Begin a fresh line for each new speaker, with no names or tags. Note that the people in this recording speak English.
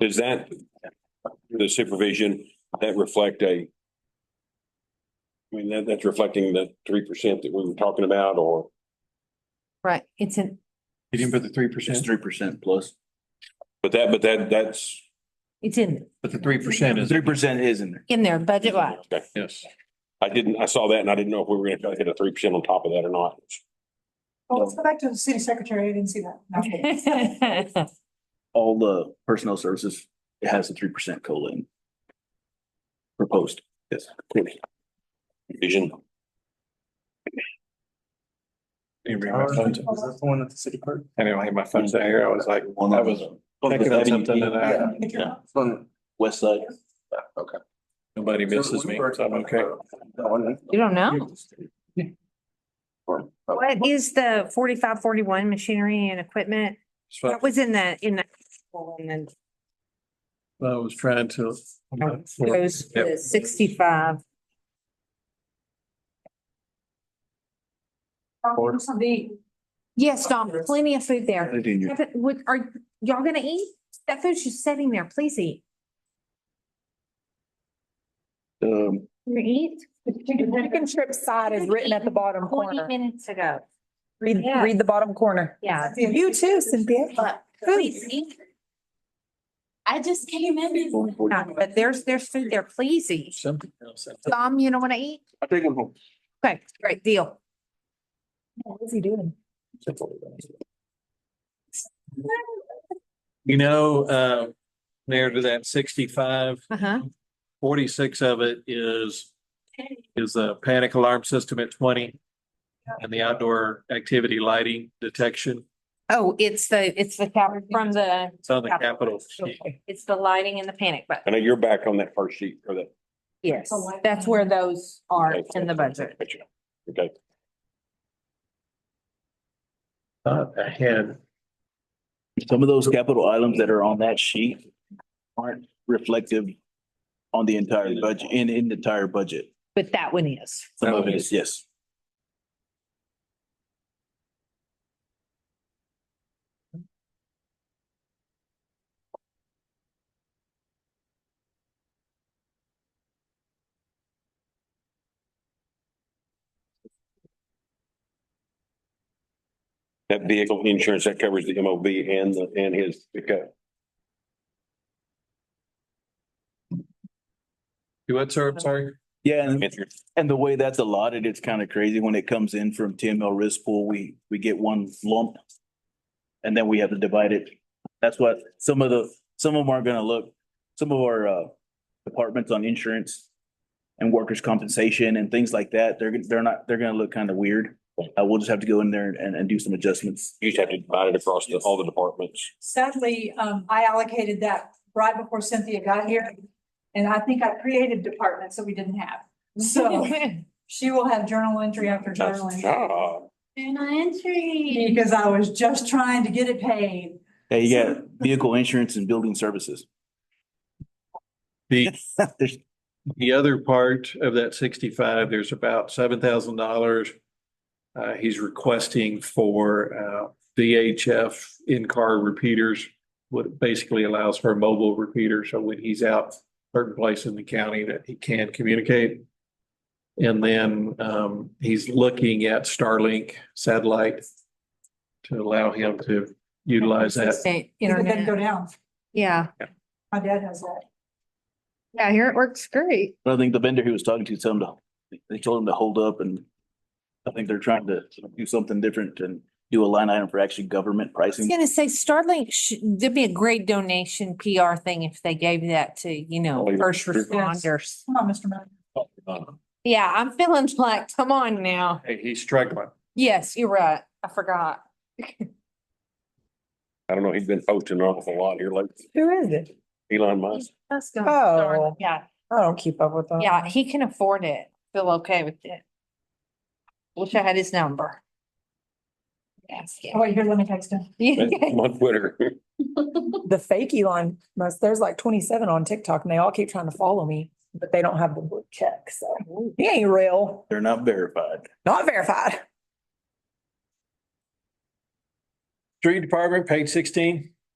Does that, the supervision, that reflect a? I mean, that, that's reflecting the three percent that we were talking about or?
Right, it's an,
You didn't put the three
It's
percent,
three percent plus.
But that, but that, that's.
it's in,
but the three percent is,
Three percent is in there.
in there budget wise.
Okay.
yes.
I didn't, I saw that and I didn't know if we were gonna try to hit a three percent on top of that or not.
Well, Oh, let's go back to the city secretary. I didn't see that. Okay.
All the personnel services, it has a three percent COLA in. Proposed.
Yes. Vision,
Anybody have my phone?
that the one at the city clerk?
I didn't have my phone set here. I was like,
One
that
of
was
them.
thinking of something that
Uh,
I,
I think you're not.
West side.
nobody misses me, so I'm okay.
You don't know? What is the forty-five, forty-one machinery and equipment?
So I-
That was in the, in the. And then
I was trying to.
goes to
Yep.
sixty-five.
Oh, it's on the-
Yes, Dom, plenty of food there.
They didn't-
Have it- would- Are y'all gonna eat? That food's just sitting there. Please eat.
Um,
You eat?
The chicken- the chicken strip side is written at the bottom
Twenty
corner.
minutes ago.
Read, read the bottom corner.
Yeah.
You too, Cynthia.
But please, eat. I just came in.
one forty.
Yeah, But there's, there's food there. Please eat.
Something else.
Dom, you don't wanna eat?
I'll take one home.
Okay, great deal.
What's he doing?
You know, uh, near to that sixty-five,
Uh-huh.
forty-six of it is, is a panic alarm system at twenty. And the outdoor activity lighting detection.
Oh, it's the, it's the cap from the,
It's on the Capitol.
it's the lighting and the panic
I
button.
know you're back on that first sheet or that.
Yes, that's where those are
Okay.
in the budget.
Gotcha. Okay,
Thought ahead.
Some of those capital items that are on that sheet aren't reflective on the entire budget, in, in the entire budget.
But that one is.
Some of it is, yes.
that vehicle insurance, that covers the MOB and the, and his pickup.
You what, sir? I'm sorry.
Yeah, and
Answer.
And the way that's allotted, it's kind of crazy. When it comes in from TML risk pool, we, we get one lump. And then we have to divide it. That's what some of the, some of them are gonna look, some of our, uh, departments on insurance and workers' compensation and things like that, they're, they're not, they're gonna look kind of weird. Uh, we'll just have to go in there and, and do some adjustments.
You just have to divide it across the, all the departments.
Sadly, um, I allocated that right before Cynthia got here. And I think I created departments that we didn't have. So she will have journal entry after
Nice
journal entry.
job.
Journal entry.
Because I was just trying to get it paid.
Yeah, you got vehicle insurance and building services.
The,
There's-
the other part of that sixty-five, there's about seven thousand dollars. Uh, he's requesting for, uh, VHF in-car repeaters. What basically allows for a mobile repeater, so when he's out certain place in the county that he can communicate. And then, um, he's looking at Starlink satellite to allow him to utilize that.
It didn't go
Internet.
down.
Yeah.
My dad has that.
Yeah, here it works great.
I think the vendor he was talking to told him to, they told him to hold up and I think they're trying to do something different and do a line item for actually government
I was
pricing.
gonna say Starlink, sh- there'd be a great donation PR thing if they gave that to, you know,
Oh, yeah.
first responders.
Come on, Mr. Miller.
Yeah, I'm feeling like, come on now.
Hey, he's struggling.
Yes, you're right. I forgot.
I don't know, he's been posting an awful lot here lately.
Who is it?
Elon Musk.
That's going.
Oh.
Yeah,
I don't keep up with them.
yeah, he can afford it. Feel okay with it. Wish I had his number. Yes,
Oh, wait, here, let me text him.
yeah.
I'm on Twitter.
The fake Elon Musk, there's like twenty-seven on TikTok and they all keep trying to follow me, but they don't have the blue check, so he ain't real,
They're not verified.
not verified.
Street Department, page sixteen.